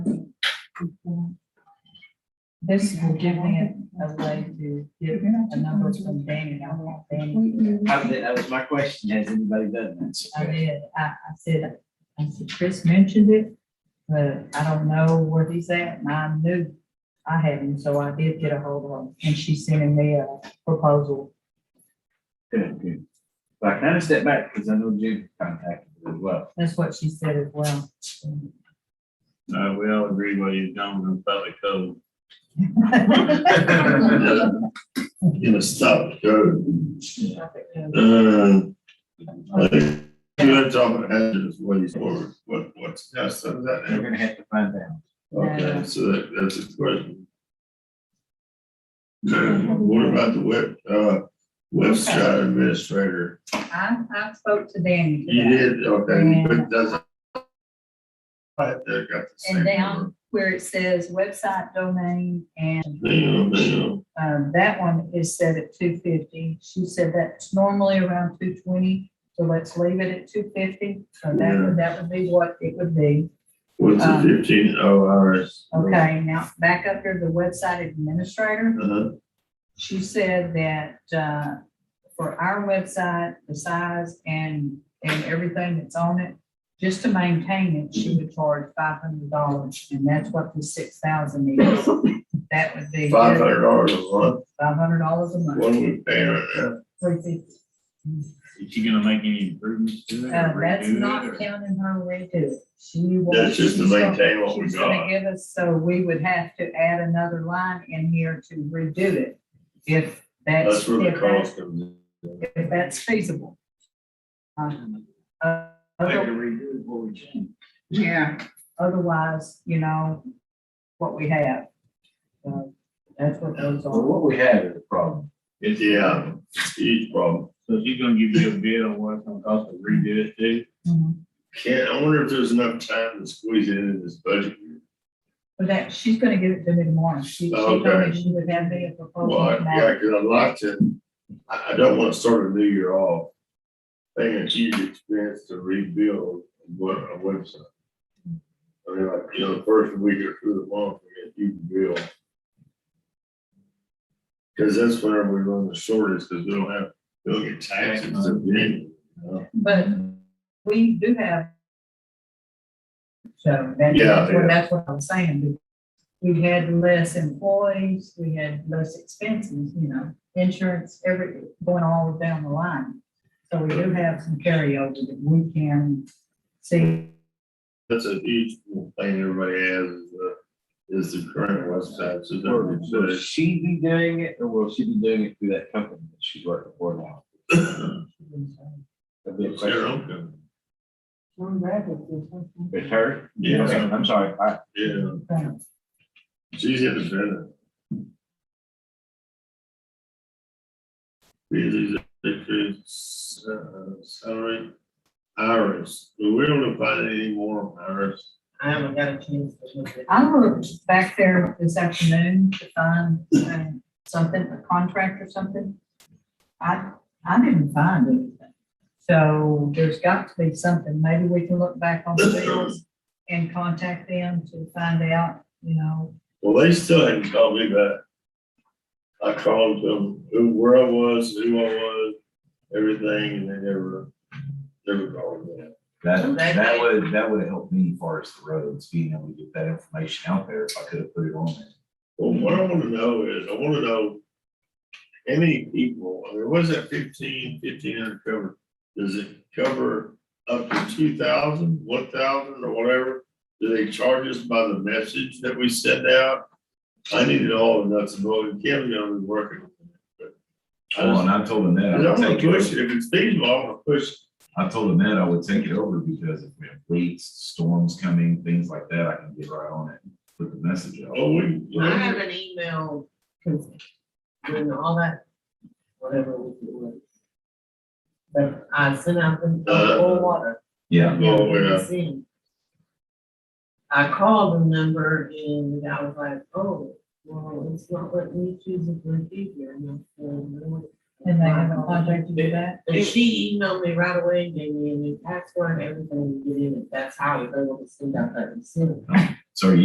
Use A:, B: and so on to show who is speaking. A: This will give me a a way to get a number from Danny, I want Danny.
B: I- That was my question. Has anybody done
A: I
B: that?
A: did, I, I said, I said, Chris mentioned it, but I don't know where he's at, and I knew I had him, so I did get a hold of him, and she sent me a proposal.
B: Good, good. Well, I kind of step back because I know Jude contacted as well.
A: That's what she said as well.
C: Uh, we all agree what he's done with the public code.
D: in a stop code. Uh, You're talking address, what he's for, what, what's, that's,
B: We're
D: that,
B: gonna have to find out.
D: okay, so that, that's a question. Uh, What about the web, uh, website administrator?
A: I, I spoke to Danny.
D: You
A: today,
D: did, okay, but doesn't. But they got the same.
A: And down where it says website domain and,
D: Damn, damn,
A: um, that one is set at two fifty. She said that's normally around two twenty, so let's leave it at two fifty. So that,
D: Yeah.
A: would- that would be what it would be.
D: what's the
A: Um,
D: fifteen oh hours?
A: Okay, now back up here, to the website administrator.
D: Uh-huh,
A: She said that, uh, for our website, the size and, and everything that's on it, just to maintain it, she would charge five hundred dollars, and that's what the six thousand is. That would be
D: five
A: five
D: hundred dollars a month,
A: hundred dollars a
D: what
A: month.
D: are we paying right now?
A: three fifty.
C: Is she gonna make any improvements to it?
A: Uh,
C: or
A: that's
C: redo it,
A: not
C: or-
A: counting her redo. She will.
D: That's just to
A: she's gonna-
D: maintain what we
A: She's gonna
D: got.
A: give us, so we would have to add another line in here to redo it if that's.
D: That's where
A: if
D: the
A: that's-
D: cost comes in.
A: if that's feasible. Um, uh,
B: Maybe
A: other-
B: redo it before we change.
A: Yeah, otherwise, you know, what we have. So, That's what those
B: Well,
A: are.
B: what we have is a problem.
D: It's, yeah, huge problem.
C: So she's gonna give you a bid on what it's gonna cost to redo it too?
A: Mhm.
D: Can't, I wonder if there's enough time to squeeze it in this budget. year.
A: But that, she's gonna give it to me tomorrow. She, she told me
D: Okay.
A: she would have me a proposal.
D: Well,
A: tomorrow.
D: yeah, cause I'd like to, I, I don't wanna start a new year off. Paying a huge expense to rebuild what, a website. I mean, like, you know, the first week or through the month, we get a huge bill. Cause that's whenever we run the shortest, cause we don't have, we don't get taxes to pay.
A: But we do have. So that-
D: Yeah,
A: that's what,
D: yeah.
A: that's what I'm saying. We had less employees, we had less expenses, you know, insurance, every, going all down the line. So we do have some carryover that we can see.
D: That's a huge thing everybody has, is the, is the current website, so
B: Will
D: don't
B: will she be doing it or will she be doing it through that company that she's working for now? That'd be a
D: It's your own
B: question.
D: company.
B: It's her?
D: Yeah.
B: Okay, I'm sorry. I-
D: Yeah, she's independent. Really, it's, uh, salary, Iris, but we don't find any more Iris.
E: I haven't got a chance to look at.
A: I looked back there this afternoon to find uh, something, a contract or something. I, I didn't find anything. So there's got to be something. Maybe we can look back on the bills and contact them to find out, you know.
D: Well, they still hadn't called me back. I called them, who, where I was, who I was, everything, and they never, never called me back.
B: That, that would, that would help me as far as the roads, being able to get that information out there if I could have put it on there.
D: Well, what I wanna know is, I wanna know how many people, I mean, what is that fifteen, fifteen hundred cover? Does it cover up to two thousand, one thousand or whatever? Do they charge us by the message that we send out? I need it all and that's all, and Kim's gonna be working. on it, but I
F: Well,
D: just-
F: and I told him that,
D: I
F: I
D: don't
F: would
D: wanna
F: take it,
D: push
F: over.
D: it, if it's feasible, I wanna push. it.
F: I told him that I would take it over because if we have leaks, storms coming, things like that, I can get right on it, and put the message out.
D: Oh, we,
E: I have an email, cause doing all that, whatever we do. But I sent out the, the whole water.
F: Yeah,
D: Oh, yeah.
E: It's in. I called the number and I was like, oh, well, it's not what we choose if we're here. And I said, "No."
A: And they have a contract to do that.
E: And she emailed me right away, gave me a new password, everything to get in it. That's how I was able to send out that receipt.
F: so are you